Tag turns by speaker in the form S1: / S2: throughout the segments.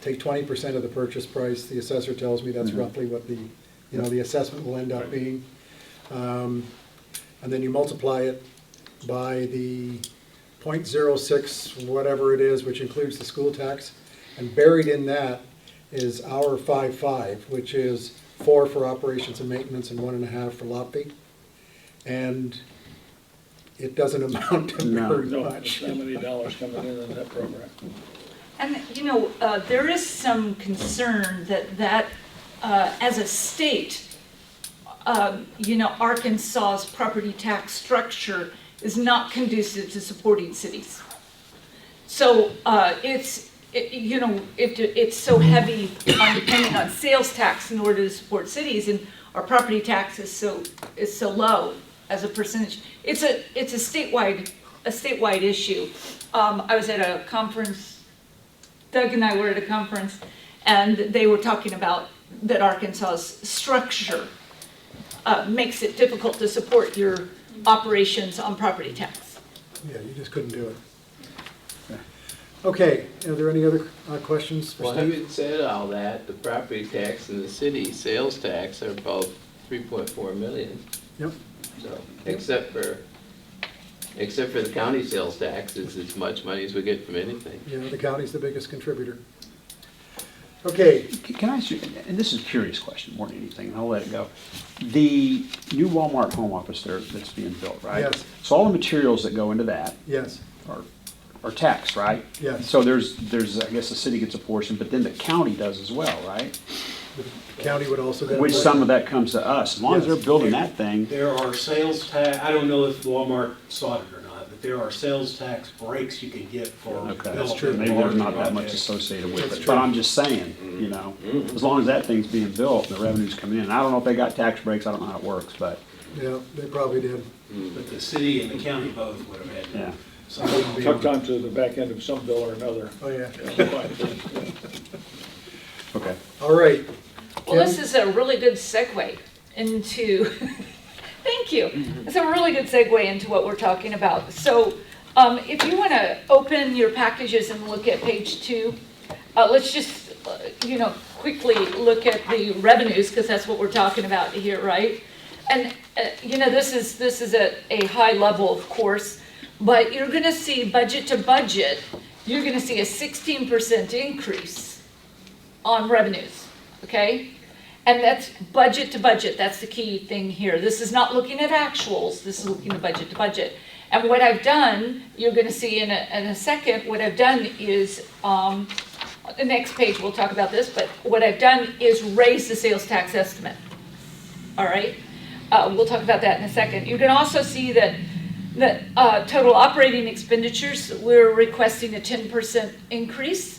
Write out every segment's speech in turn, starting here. S1: take twenty percent of the purchase price, the assessor tells me that's
S2: Mhm.
S1: roughly what the, you know, the assessment will end up
S3: Right.
S1: being. Um, And then you multiply it by the point zero six, whatever it is, which includes the school tax. And buried in that is our five-five, which is four for operations and maintenance and one and a half for lot fee. And it doesn't amount to
S2: No.
S1: very
S3: No,
S1: much.
S3: there's not many dollars coming in in that program.
S4: And, you know, uh, there is some concern that that, uh, as a state, um, you know, Arkansas's property tax structure is not conducive to supporting cities. So uh, it's, it- you know, it- it's so heavy on depending on sales tax in order to support cities, and our property tax is so, is so low as a percentage. It's a, it's a statewide, a statewide issue. Um, I was at a conference Doug and I were at a conference, and they were talking about that Arkansas's structure uh, makes it difficult to support your operations on property tax.
S1: Yeah, you just couldn't do it. Okay, are there any other uh, questions for
S5: Well,
S1: Steve?
S5: having said all that, the property tax and the city sales tax are both three point four million,
S1: Yep,
S5: so, except for, except for the county sales tax is as much money as we get from anything.
S1: yeah, the county's the biggest contributor. Okay,
S2: C- Can I ask you, and this is a curious question more than anything, and I'll let it go. The new Walmart home office there that's being built, right?
S1: Yes.
S2: So all the materials that go into that
S1: yes,
S2: are, are taxed, right?
S1: Yes.
S2: So there's, there's, I guess the city gets a portion, but then the county does as well, right?
S1: the county would also. get a
S2: Which
S1: vote.
S2: some of that comes to us. As long as
S1: Yes.
S2: they're building that thing,
S6: There are sales tax, I don't know if Walmart saw it or not, but there are sales tax breaks you can get for.
S2: okay.
S6: developing
S2: Maybe
S6: large
S2: there's not that much
S6: projects.
S2: associated with
S1: That's
S2: it,
S1: true.
S2: but I'm just saying, you know, as long as that thing's being built, and the revenue's coming in. I don't know if they got tax breaks, I don't know how it works, but,
S1: Yeah, they probably did.
S6: But the city and the county both would have had. to-
S2: yeah.
S6: So-
S3: Tucked onto the back end of some bill or another.
S1: Oh, yeah.
S2: Okay.
S1: All right,
S4: Well, this is a really good segue into, thank you. It's a really good segue into what we're talking about. So um, if you want to open your packages and look at page two, uh, let's just, uh, you know, quickly look at the revenues, because that's what we're talking about here, right? And, uh, you know, this is, this is at a high level, of course, but you're going to see budget to budget, you're going to see a 16% increase on revenues, okay? And that's budget to budget, that's the key thing here. This is not looking at actuals, this is looking at budget to budget. And what I've done, you're gonna see in a, in a second, what I've done is, um, the next page, we'll talk about this, but what I've done is raise the sales tax estimate all right? Uh, we'll talk about that in a second. You can also see that, that, uh, total operating expenditures, we're requesting a ten percent increase.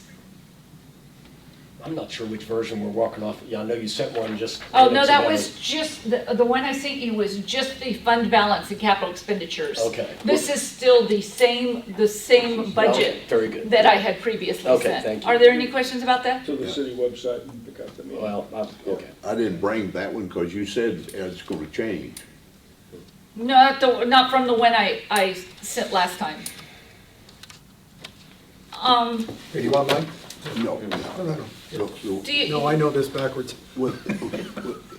S7: I'm not sure which version we're walking off. Yeah, I know you sent one just.
S4: Oh, no,
S7: minutes
S4: that
S7: ago.
S4: was just, the, the one I sent you was just the fund balance and capital expenditures.
S7: Okay.
S4: This is still the same, the same budget
S7: Very good.
S4: that I had previously sent.
S7: Okay, thank you.
S4: Are there any questions about that?
S3: To the city website and pick up the meeting.
S7: Well, I- okay.
S8: I didn't bring that one because you said it's gonna change.
S4: Not the, not from the one I, I sent last time. Um,
S1: do you want mine?
S8: No.
S1: No, no, no.
S8: Look, the-
S4: do you?
S1: No, I know this backwards.
S8: what- what-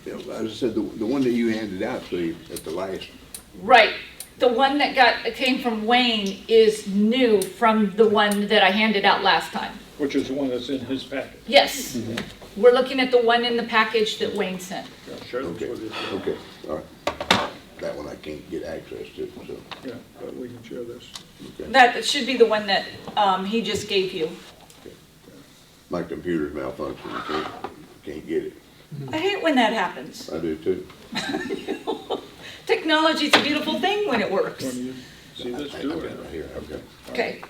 S8: As I said, the, the one that you handed out to you at the last,
S4: Right. The one that got, that came from Wayne is new from the one that I handed out last time.
S3: Which is the one that's in his packet.
S4: Yes.
S7: Mm-hmm.
S4: We're looking at the one in the package that Wayne sent.
S3: Yeah, Sure, that's
S8: okay,
S3: what it is.
S8: okay, all right. That one I can't get access to, so,
S3: Yeah, but we can share this.
S8: okay.
S4: That should be the one that um, he just gave you.
S8: My computer's malfunctioning, can't, can't get it.
S4: I hate when that happens.
S8: I do too.
S4: Technology's a beautiful thing when it works.
S3: When you see this
S8: I-
S3: too.
S8: I've
S3: or-
S8: got it right here, I've got it.
S4: Okay.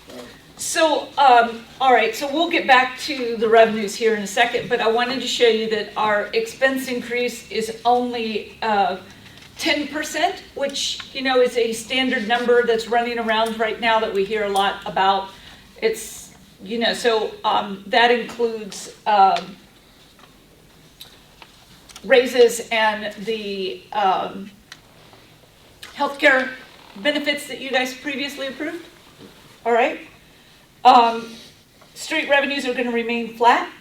S4: So, um, all right, so we'll get back to the revenues here in a second, but I wanted to show you that our expense increase is only, uh, ten percent, which, you know, is a standard number that's running around right now that we hear a lot about. It's, you know, so, um, that includes, um, raises and the, um, healthcare benefits that you guys previously approved, all right? Um, street revenues are gonna remain flat,